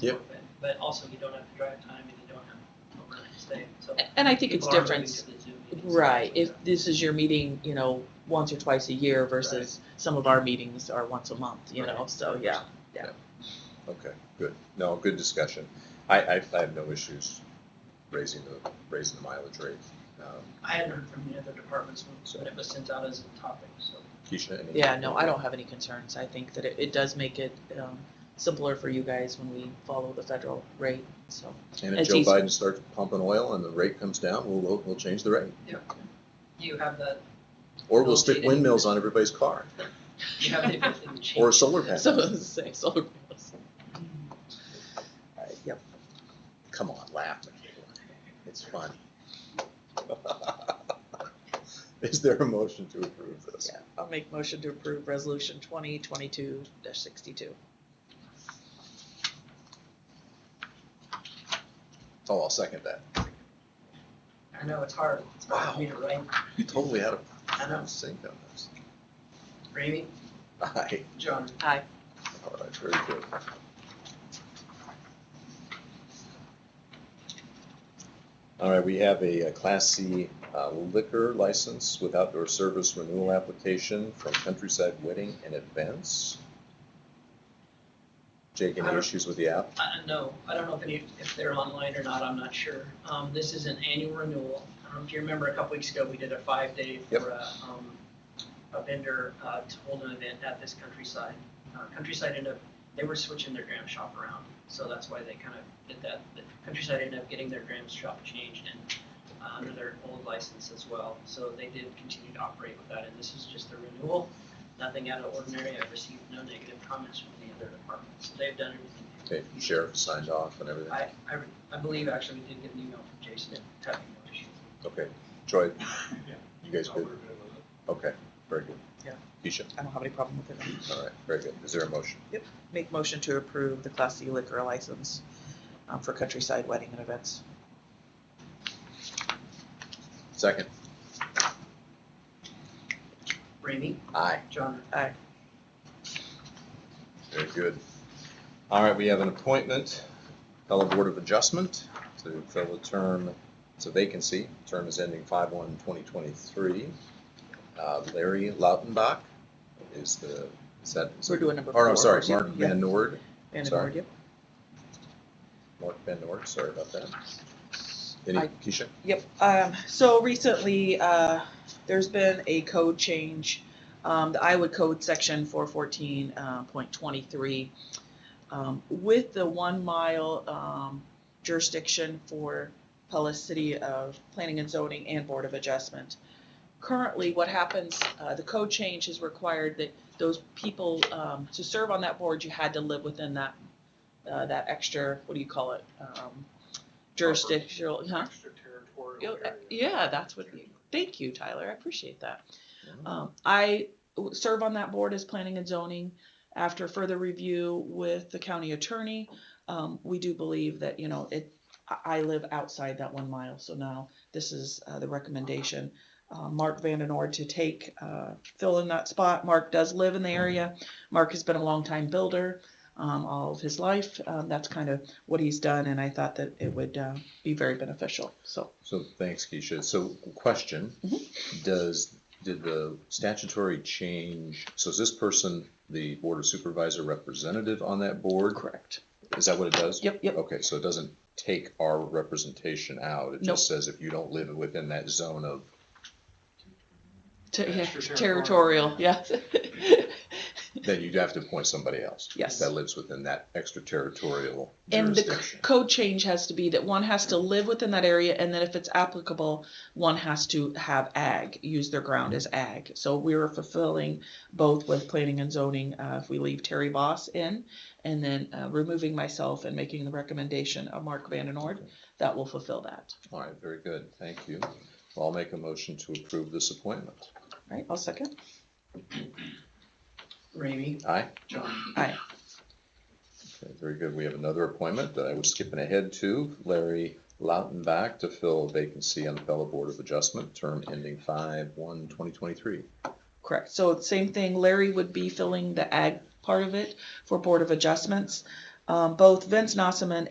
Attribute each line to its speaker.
Speaker 1: Yep.
Speaker 2: But also you don't have to drive time and you don't have overnight stay, so.
Speaker 3: And I think it's
Speaker 2: people aren't
Speaker 3: different,
Speaker 2: moving to the Zoom meetings.
Speaker 3: right, if this is your meeting, you know, once or twice a year versus some of our meetings are once a month, you know,
Speaker 2: Right.
Speaker 3: so, yeah.
Speaker 1: Okay, good. No, good discussion. I, I, I have no issues raising the, raising the mileage rate. Um,
Speaker 2: I hadn't heard from the other departments, but it was sent out as a topic, so.
Speaker 1: Keisha, any?
Speaker 3: Yeah, no, I don't have any concerns, I think that it, it does make it, um, simpler for you guys when we follow the federal rate, so.
Speaker 1: And if
Speaker 3: It's
Speaker 1: Joe
Speaker 3: easy.
Speaker 1: Biden starts pumping oil and the rate comes down, we'll- we'll, we'll change the rate.
Speaker 2: Do you have the,
Speaker 1: Or we'll
Speaker 2: We'll
Speaker 1: stick
Speaker 2: cheat it.
Speaker 1: windmills on everybody's car,
Speaker 2: do you have the ability to change?
Speaker 1: or solar panels.
Speaker 3: So, say, solar panels. Alright, Yep,
Speaker 1: Come on, laugh. It's fun. Is there a motion to approve this?
Speaker 3: yeah, I'll make motion to approve resolution twenty twenty-two dash sixty-two.
Speaker 1: Oh, I'll second that.
Speaker 2: I know it's hard, it's hard for me to write.
Speaker 1: Totally out
Speaker 2: I know.
Speaker 1: of sync on this.
Speaker 2: Ramey,
Speaker 1: Aye.
Speaker 2: John,
Speaker 3: Aye.
Speaker 1: All right, very good. All right, we have a uh, Class C uh, liquor license with outdoor service renewal application from Countryside Wedding and Events. Jake, any
Speaker 2: Uh,
Speaker 1: issues with the app?
Speaker 2: I don't know, I don't know if any, if they're online or not, I'm not sure. Um, this is an annual renewal. I don't know if you remember a couple weeks ago, we did a five-day
Speaker 1: Yep.
Speaker 2: for a, um, a vendor, uh, to hold an event at this countryside. Uh, Countryside ended up, they were switching their gram shop around, so that's why they kind of did that. The Countryside ended up getting their gram shop changed and, uh, under their old license as well. So they did continue to operate with that, and this is just a renewal nothing out of ordinary. I've received no negative comments from the other departments. They've done everything.
Speaker 1: Okay, Sheriff signed off and everything?
Speaker 2: I, I, I believe actually we did get an email from Jason having no issues.
Speaker 1: Okay, Troy, you guys good? Okay, very good.
Speaker 3: Yeah.
Speaker 1: Keisha,
Speaker 3: I don't have any problem with it.
Speaker 1: all right, very good. Is there a motion?
Speaker 3: Make motion to approve the Class C liquor license um, for Countryside Wedding and Events.
Speaker 1: Second?
Speaker 2: Ramey,
Speaker 1: Aye.
Speaker 2: John,
Speaker 1: Very good. All right, we have an appointment, fellow Board of Adjustment, to fill a term, it's a vacancy, term is ending five one twenty twenty-three. Uh, Larry Lautenbach is the, is that, is
Speaker 3: So we're
Speaker 1: it-
Speaker 3: doing number four.
Speaker 1: oh, no, sorry,
Speaker 3: Yeah,
Speaker 1: Mark Van Nord,
Speaker 3: Van
Speaker 1: sorry.
Speaker 3: Nord, yep.
Speaker 1: Mark Van Nord, sorry about that. Any,
Speaker 3: I-
Speaker 1: Keisha?
Speaker 3: Yep, um, so recently, uh, there's been a code change. Um, the Iowa Code Section four fourteen, uh, point twenty-three. Um, with the one mile, um, jurisdiction for Pellis City of Planning and Zoning and Board of Adjustment. Currently, what happens, uh, the code change has required that those people, um, to serve on that board, you had to live within that, uh, that extra, what do you call it? Um, Jurisdictional, huh?
Speaker 4: Extraterritorial
Speaker 3: Yo- uh,
Speaker 4: area.
Speaker 3: Yeah, that's what, thank you, Tyler, I appreciate that. Um, I w- serve on that board as planning and zoning. After further review with the county attorney, um, we do believe that, you know, it, I, I live outside that one mile, so now this is, uh, the recommendation. Uh, Mark Vandenoord to take, uh, fill in that spot. Mark does live in the area. Mark has been a longtime builder, um, all of his life. Um, that's kind of what he's done, and I thought that it would, uh, be very beneficial, so.
Speaker 1: So, thanks, Keisha. So, question,
Speaker 3: Mm-hmm.
Speaker 1: does, did the statutory change, so is this person the Board of Supervisor representative on that board?
Speaker 3: Correct. Oh,
Speaker 1: Is that what it does?
Speaker 3: Yep, yep.
Speaker 1: Okay, so it doesn't take our representation out, it
Speaker 3: Nope.
Speaker 1: just says if you don't live within that zone of,
Speaker 3: Ter- yeah,
Speaker 4: Extraterritorial.
Speaker 3: Territorial, yes.
Speaker 1: then you'd have to appoint somebody else.
Speaker 3: Yes.
Speaker 1: That lives within that extraterritorial
Speaker 3: And the c-
Speaker 1: jurisdiction.
Speaker 3: code change has to be that one has to live within that area, and then if it's applicable, one has to have ag, use their ground as ag. So we were fulfilling both with planning and zoning, uh, if we leave Terry Voss in, and then, uh, removing myself and making the recommendation of Mark Vandenoord, that will fulfill that.
Speaker 1: All right, very good, thank you. Well, I'll make a motion to approve this appointment.
Speaker 3: Right, I'll second.
Speaker 2: Ramey,
Speaker 1: Aye?
Speaker 2: John,
Speaker 3: Aye.
Speaker 1: Okay, Very good. We have another appointment that I was skipping ahead to, Larry Lautenbach to fill a vacancy on the Pella Board of Adjustment, term ending five one twenty twenty-three.
Speaker 3: Correct. So same thing, Larry would be filling the ag part of it for Board of Adjustments. Um, both Vince Nossaman